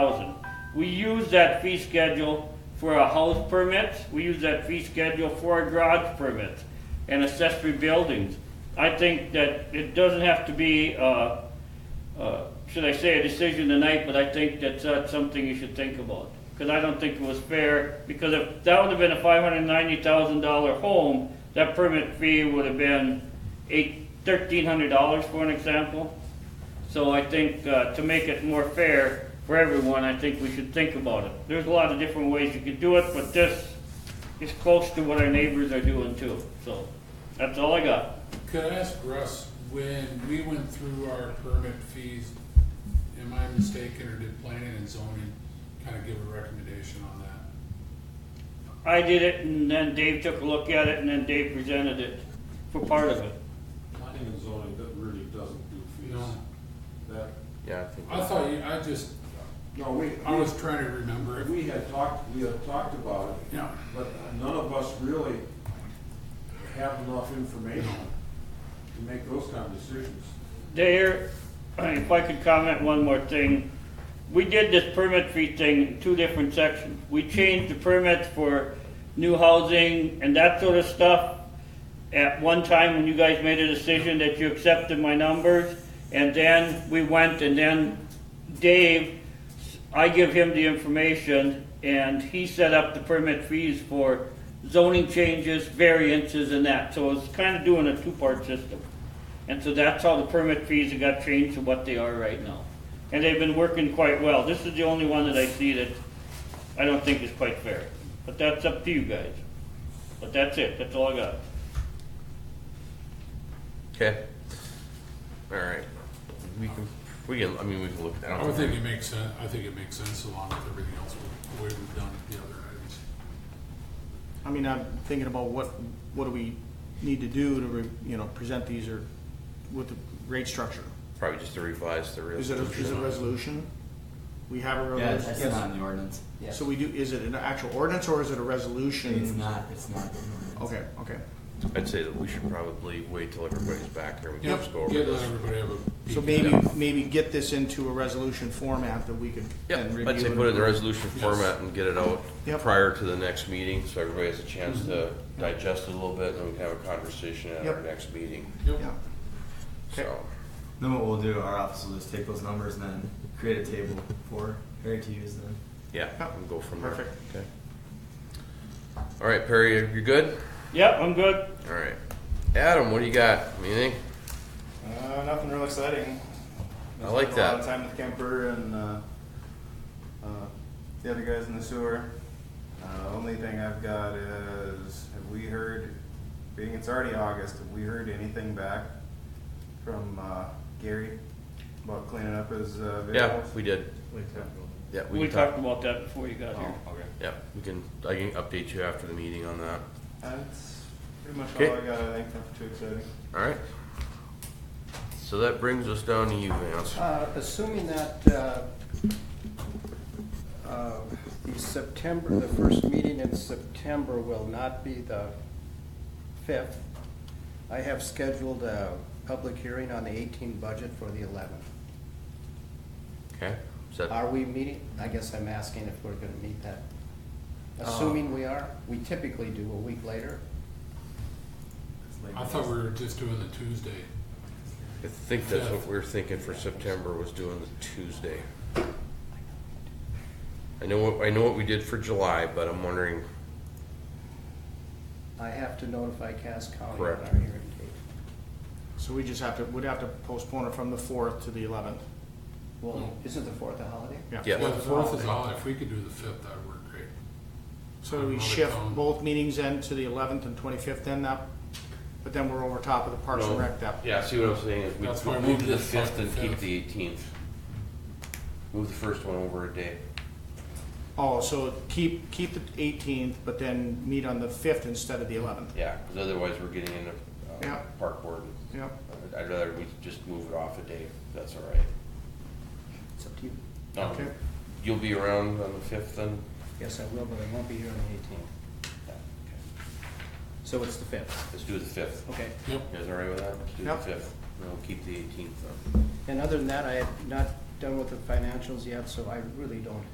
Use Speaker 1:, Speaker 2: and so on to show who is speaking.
Speaker 1: We use that fee schedule for a house permit, we use that fee schedule for a garage permit and accessory buildings. I think that it doesn't have to be, uh, uh, should I say, a decision tonight, but I think that's uh, something you should think about. Because I don't think it was fair, because if that would have been a five hundred ninety thousand dollar home, that permit fee would have been eight, thirteen hundred dollars for an example. So I think, uh, to make it more fair for everyone, I think we should think about it. There's a lot of different ways you could do it, but this is close to what our neighbors are doing too, so that's all I got.
Speaker 2: Could I ask Russ, when we went through our permit fees, am I mistaken, or did planning and zoning kind of give a recommendation on that?
Speaker 1: I did it, and then Dave took a look at it, and then Dave presented it for part of it.
Speaker 3: Planning and zoning, that really doesn't do
Speaker 2: You know,
Speaker 3: fees. That,
Speaker 4: Yeah, I think.
Speaker 2: I thought you, I just,
Speaker 3: no, we,
Speaker 2: I was trying to remember. it.
Speaker 3: we had talked, we had talked about it,
Speaker 2: Yeah,
Speaker 3: but none of us really have enough information to make those kind of decisions.
Speaker 1: There, if I could comment one more thing, we did this permit fee thing in two different sections. We changed the permits for new housing and that sort of stuff at one time when you guys made a decision that you accepted my numbers. And then we went and then Dave, I give him the information and he set up the permit fees for zoning changes, variances and that. So it's kind of doing a two-part system. And so that's how the permit fees have got changed to what they are right now. And they've been working quite well. This is the only one that I see that I don't think is quite fair. But that's up to you guys. But that's it, that's all I got.
Speaker 4: Okay. All right. We can. We can. I mean, we can look. I don't.
Speaker 2: I would think it makes sense, I think it makes sense along with everything else, the way we've done the other items.
Speaker 5: I mean, I'm thinking about what, what do we need to do to, re- you know, present these or with the rate structure?
Speaker 4: probably just to revise the real.
Speaker 5: Is it, a- is it a resolution? We have a
Speaker 6: Yeah, that's
Speaker 5: resolution.
Speaker 6: not in the ordinance. Yeah.
Speaker 5: So we do, is it an actual ordinance or is it a resolution?
Speaker 6: It's not, it's not in the ordinance.
Speaker 5: Okay, okay.
Speaker 4: I'd say that we should probably wait till everybody's back here. We can
Speaker 2: Yep,
Speaker 4: just go over
Speaker 2: yeah, let
Speaker 4: this.
Speaker 2: everybody have a.
Speaker 5: So
Speaker 2: peek.
Speaker 5: maybe, maybe get this into a resolution format that we could
Speaker 4: Yeah,
Speaker 5: then review.
Speaker 4: I'd say
Speaker 5: and
Speaker 4: put it in the
Speaker 5: approve.
Speaker 4: resolution
Speaker 2: Yes.
Speaker 4: format and get it out
Speaker 5: Yep. Mm-hmm.
Speaker 4: prior to the next meeting, so everybody has a chance to digest it a little bit, and then we can have a conversation at our
Speaker 5: Yep.
Speaker 4: next meeting.
Speaker 2: Yep,
Speaker 5: Yeah. Okay.
Speaker 4: So,
Speaker 6: Then what we'll do, our office will just take those numbers and then create a table for Harry to use then.
Speaker 4: yeah,
Speaker 5: Yep.
Speaker 4: we'll go from there.
Speaker 5: Perfect.
Speaker 4: Okay. All right, Perry, you're good?
Speaker 1: Yep, I'm good.
Speaker 4: All right. Adam, what do you got? Anything?
Speaker 7: Uh, nothing real exciting.
Speaker 4: I like
Speaker 7: Spent
Speaker 4: that.
Speaker 7: A lot of time with Kemper and uh, uh, the other guys in the sewer. Uh, only thing I've got is have we heard, being it's already August, have we heard anything back from uh, Gary about cleaning up his uh, videos?
Speaker 4: Yeah, we did. Yeah, we,
Speaker 1: We
Speaker 4: can talk.
Speaker 1: talked about that before you got here.
Speaker 7: Oh, okay.
Speaker 4: Yeah, we can. I can update you after the meeting on that.
Speaker 7: That's pretty much
Speaker 4: Okay.
Speaker 7: all I got. I think nothing too exciting.
Speaker 4: All right. So that brings us down to you, Vance.
Speaker 8: Uh, Assuming that uh, uh, the September, the first meeting in September will not be the 5th, I have scheduled a public hearing on the 18 budget for the 11th.
Speaker 4: Okay. Is that
Speaker 8: Are we meeting? I guess I'm asking if we're going to meet that. Assuming we are, we typically do a week later.
Speaker 2: I thought we were just doing the Tuesday.
Speaker 4: I think that's what we were thinking for September was doing the Tuesday. I know what I know what we did for July, but I'm wondering.
Speaker 8: I have to notify Cass County on
Speaker 4: Correct.
Speaker 8: our hearing date.
Speaker 5: So we just have to, would have to postpone it from the fourth to the eleventh.
Speaker 8: Well, isn't the 4th a holiday?
Speaker 4: Yeah.
Speaker 2: Yeah, the fourth is all, if we could do the fifth, that would work great.
Speaker 5: So do we
Speaker 2: Another
Speaker 5: shift
Speaker 2: phone.
Speaker 5: both meetings then to the eleventh and twenty-fifth then that, but then we're over top of the Parks and Rec that.
Speaker 4: Yeah, see what I'm saying is we
Speaker 2: That's why I
Speaker 4: move
Speaker 2: moved
Speaker 4: the
Speaker 2: the
Speaker 4: fifth and keep
Speaker 2: fifth.
Speaker 4: the eighteenth. Move the first one over a day.
Speaker 5: Oh, so keep, keep the eighteenth, but then meet on the fifth instead of the eleventh.
Speaker 4: Yeah, because otherwise we're getting into uh,
Speaker 5: Yeah.
Speaker 4: park board. and-
Speaker 5: Yep.
Speaker 4: I'd rather we just move it off a day. if That's all right.
Speaker 8: It's up to you.
Speaker 4: Um,
Speaker 5: Okay.
Speaker 4: You'll be around on the fifth then?
Speaker 8: Yes, I will, but I won't be here on the 18th.
Speaker 4: Yeah, okay.
Speaker 8: So it's the 5th,
Speaker 4: Let's do the fifth.
Speaker 8: okay.
Speaker 2: Yep.
Speaker 4: You guys all right with that? Let's do the
Speaker 5: Yep.
Speaker 4: fifth. And we'll keep the eighteenth then.
Speaker 8: And other than that, I have not done with the financials yet, so I really don't